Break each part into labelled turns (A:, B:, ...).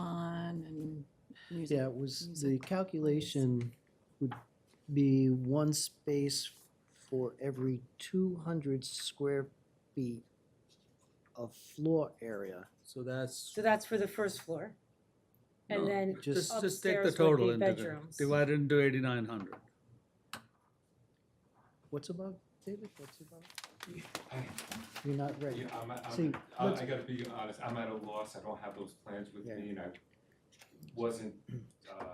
A: salon and music.
B: Yeah, it was, the
A: music
B: calculation would be one space for every two hundred square feet of floor area.
C: So that's.
D: So that's for the first floor. And
C: no,
D: then
B: Just-
C: Just, just take the
D: upstairs would
C: total
D: be
C: and divi-
D: bedrooms.
C: divide it into eighty-nine hundred.
B: What's above, David, what's above?
E: I-
B: You're not ready.
E: Yeah, I'm, at-
B: See,
E: I'm, I
B: let's-
E: I gotta be honest, I'm at a loss, I don't have those plans with
B: Yeah.
E: me, and I wasn't, uh,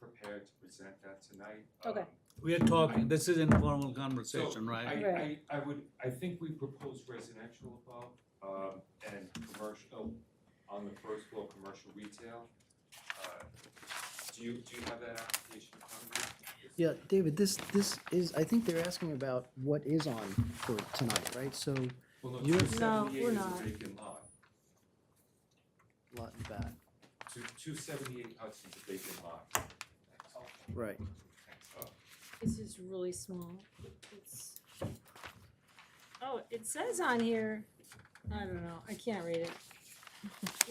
E: prepared to present that tonight.
D: Okay.
E: Um,
C: We are talking, this is informal conversation,
E: So,
C: right?
E: I,
D: Right.
E: I, I would, I think we proposed residential above, um, and commercial, oh, on the first floor, commercial retail. Uh, Do you, do you have that application in front of you?
B: Yeah, David, this, this is, I think they're asking about what is on for tonight, right? So
E: Well, no,
B: You- No,
E: 278
D: we're
E: is
D: not.
E: a vacant lot,
B: lot in back,
E: two, two seventy-eight Hudson's a vacant lot.
B: right.
E: Uh,
D: This is really small. It's- Oh, it says on here, I don't know, I can't read it.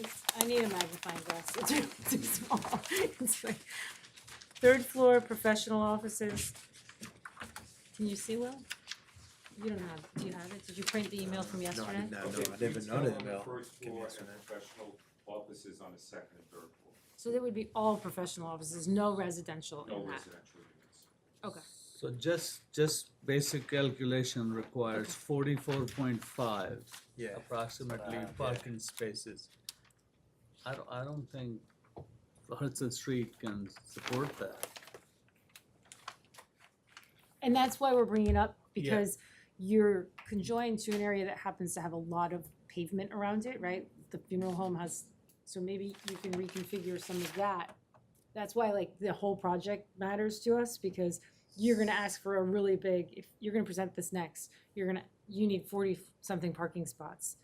D: It's- I need a magnifying glass, it's really too small. It's like, third floor, professional offices. Can you see, Will? You don't have, do you have it? Did you print the email from yesterday?
E: Okay, retail on the First
B: me
E: floor
B: a
E: and professional offices on the second and third floor,
D: So there would be all professional offices, no residential
E: no
D: in that.
E: residential units.
D: Okay,
C: So just, just basic calculation requires forty-four point five
F: Yeah.
C: approximately
F: Uh, yeah.
C: parking spaces. I don't, I don't think Hudson Street can support that.
D: and that's why we're bringing it up,
C: Yeah.
D: because you're conjoined to an area that happens to have a lot of pavement around it, right? The funeral home has, so maybe you can reconfigure some of that. That's why like the whole project matters to us, because you're gonna ask for a really big, if you're gonna present this next, you're gonna, you need forty-something parking spots.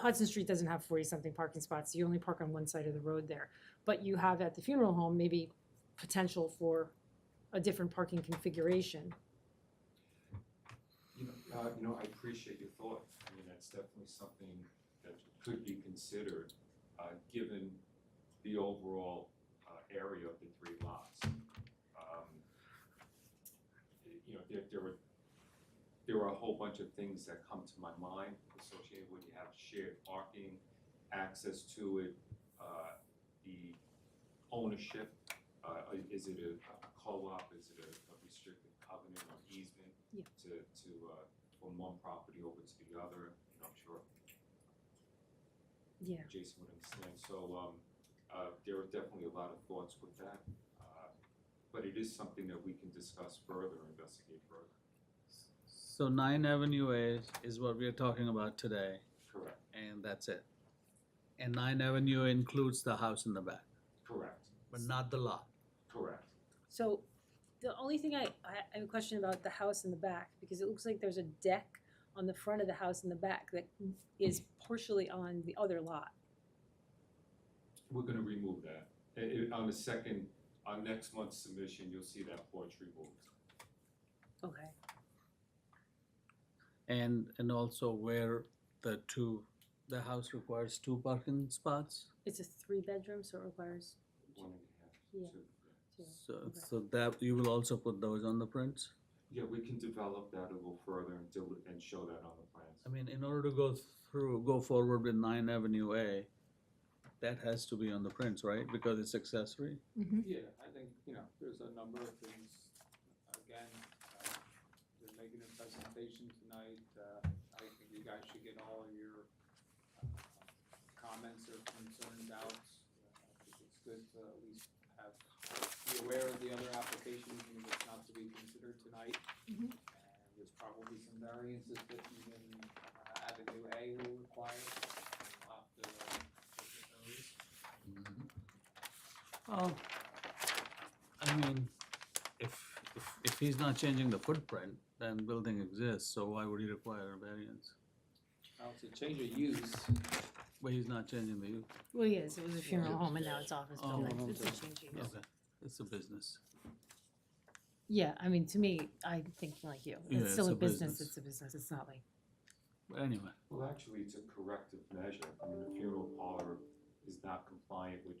D: Hudson Street doesn't have forty-something parking spots, you only park on one side of the road there. But you have at the funeral home, maybe potential for a different parking configuration.
E: You know, uh, you know, I appreciate your thought, I mean, that's definitely something that could be considered, uh, given the overall, uh, area of the three lots. Um, You know, there, there were, there were a whole bunch of things that come to my mind associated when you have shared parking, access to it, uh, the ownership, uh, is it a a co-op, is it a a restricted covenant or easement? to, to, uh, from one property over to the other, you know, I'm sure
D: Yeah.
E: Jason would understand, so, um, uh, there are definitely a lot of thoughts with that. uh, But it is something that we can discuss further, investigate further.
C: So nine Avenue A is what we are talking about today,
E: Correct,
C: and that's it. And nine Avenue includes the house in the back,
E: correct,
C: but not the lot.
E: correct.
D: So the only thing I, I I have a question about the house in the back, because it looks like there's a deck on the front of the house in the back that is partially on the other lot.
E: We're gonna remove that. I- I- on the second, on next month's submission, you'll see that porch removed.
D: Okay.
C: And, and also where the two, the house requires two parking spots.
D: It's a three-bedroom, so it requires,
E: One and a half,
D: Yeah.
E: two, yeah.
D: two.
C: So,
D: Okay.
C: so that, you will also put those on the prints?
E: Yeah, we can develop that a little further and do, and show that on the plans.
C: I mean, in order to go through, go forward with nine Avenue A, that has to be on the prints, right? Because it's accessory?
G: Yeah, I think, you know, there's a number of things, again, uh, they're making a presentation tonight, uh, I think you guys should get all of your uh, comments or concerns out. Uh, I think It's good to at least have, be aware of the other applications and what's not to be considered tonight.
D: Mhm.
G: And there's probably some variances that even uh, Avenue A will require, we'll have to uh, look at those.
C: Oh, I mean, if, if, if he's not changing the footprint, then building exists, so why would he require a variance?
G: Now, to change of use,
C: But he's not changing the use.
D: Well, yes, it was a funeral home and now it's office
C: Oh,
D: building.
B: okay.
D: It's a change of use.
C: Okay, it's a business.
D: Yeah, I mean, to me, I'm thinking like you.
C: Yeah,
D: It's still
C: it's
D: a
C: a
D: business,
C: business.
D: it's a business, it's not like,
C: But anyway,
E: Well, actually, it's a corrective measure. I mean, the funeral parlor is not compliant with